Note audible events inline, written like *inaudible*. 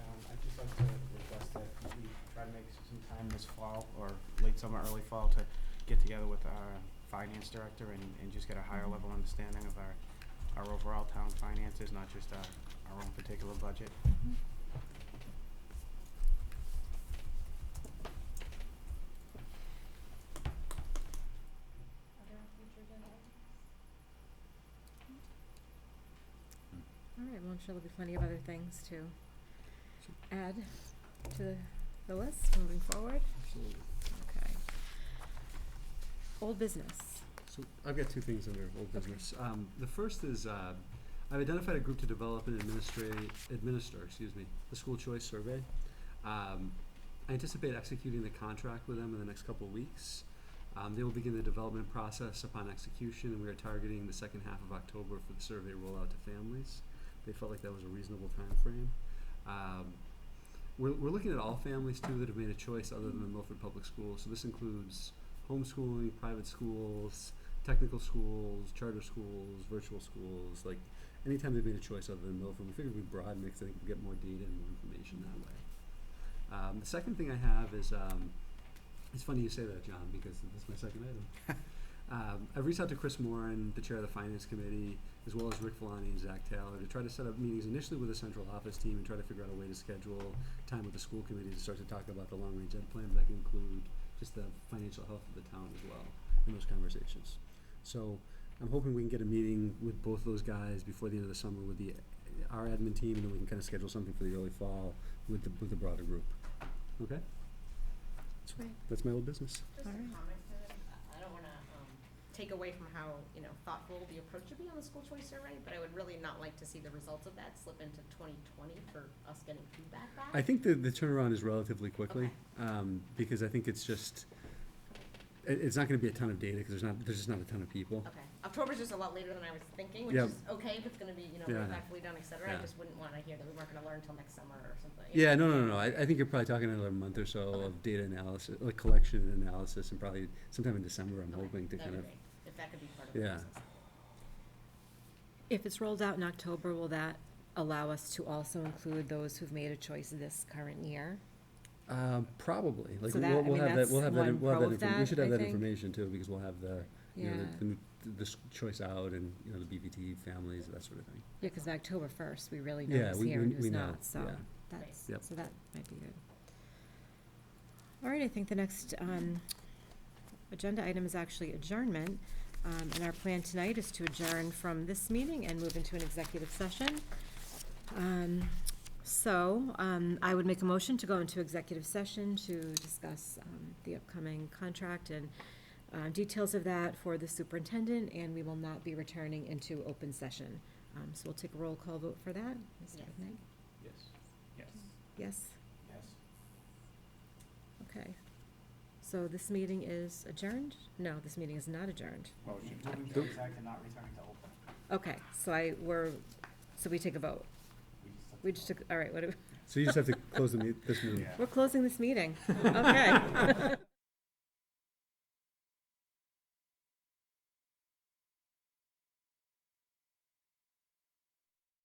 Um, sometime this fall or late summer, early fall to get together with our finance director and, and just get a higher level understanding of our, our overall town finances, not just our, our own particular budget. Other future agenda items? All right, well, I'm sure there'll be plenty of other things to add to the, the list moving forward. Absolutely. Okay. Old business. So I've got two things under old business. Um, the first is, uh, I've identified a group to develop and administrate, administer, excuse me, the school choice survey. Um, I anticipate executing the contract with them in the next couple of weeks. Um, they will begin the development process upon execution, and we are targeting the second half of October for the survey rollout to families. They felt like that was a reasonable timeframe. Um, we're, we're looking at all families too that have made a choice other than Milford Public Schools, so this includes homeschooling, private schools, technical schools, charter schools, virtual schools, like anytime they've made a choice other than Milford, we figured we'd broaden it because I think we get more data and more information that way. Um, the second thing I have is um, it's funny you say that, John, because that's my second item. um, I've reached out to Chris Moran, the chair of the finance committee, as well as Rick Filani and Zach Taylor, to try to set up meetings initially with the central office team and try to figure out a way to schedule time with the school committee to start to talk about the long range ed plan, but that can include just the financial health of the town as well in those conversations. So I'm hoping we can get a meeting with both those guys before the end of the summer with the, our admin team, and then we can kind of schedule something for the early fall with the, with the broader group. Okay? Right. That's my old business. Just a Alright. comment for them. I- I don't wanna, um, take away from how, you know, thoughtful the approach should be on the school choice survey, but I would really not like to see the results of that slip into twenty twenty for us getting feedback back. I think the, the turnaround is relatively quickly, Okay. um, because I think it's just, it, it's not gonna be a ton of data, cause there's not, there's just not a ton of people. Okay, October's just a lot later than I was thinking, which Yeah. is okay, if it's gonna be, you know, Yeah. respectfully done, et cetera, I Yeah. just wouldn't wanna hear that we weren't gonna learn till next summer or something. you Yeah, know? no, no, no, no, I, I think you're probably talking another month or so Okay. of data analysis, like collection and analysis, and probably sometime in December, I'm Okay, hoping to that'd kind of, be great, If that could be part of the Yeah. process. If it's rolled out in October, will that allow us to also include those who've made a choice this current year? um, probably, like, So that- I we'll, we'll mean, have that, that's we'll have that, one we'll have pro that, of inform- we that, should I have that think. information too, because we'll have the, you Yeah, know, the, the, the s- choice out and, you know, the BBT families, that sort of thing. yeah, cause October first, we really know Yeah, who's we, here we, and who's we know, not, so. yeah. That's, Yep. so that might be good. All right, I think the next um, agenda item is actually adjournment. Um, And our plan tonight is to adjourn from this meeting and move into an executive session. Um, So um, I would make a motion to go into executive session to discuss um, the upcoming contract and uh, details of that for the superintendent, and we will not be returning into open session. Um, So we'll take a roll call vote for that. Mr. Yes. Knight? Yes. Yes. Yes? Yes. Okay. So this meeting is adjourned? No, this meeting is not adjourned. Motion. Moving to exec and not returning to open. Okay, so I, we're, so we take a vote. We just took, all right, what, do- *laughs* So you just have to close the meet, this meeting. Yeah. we're closing this meeting. Okay. *laughs*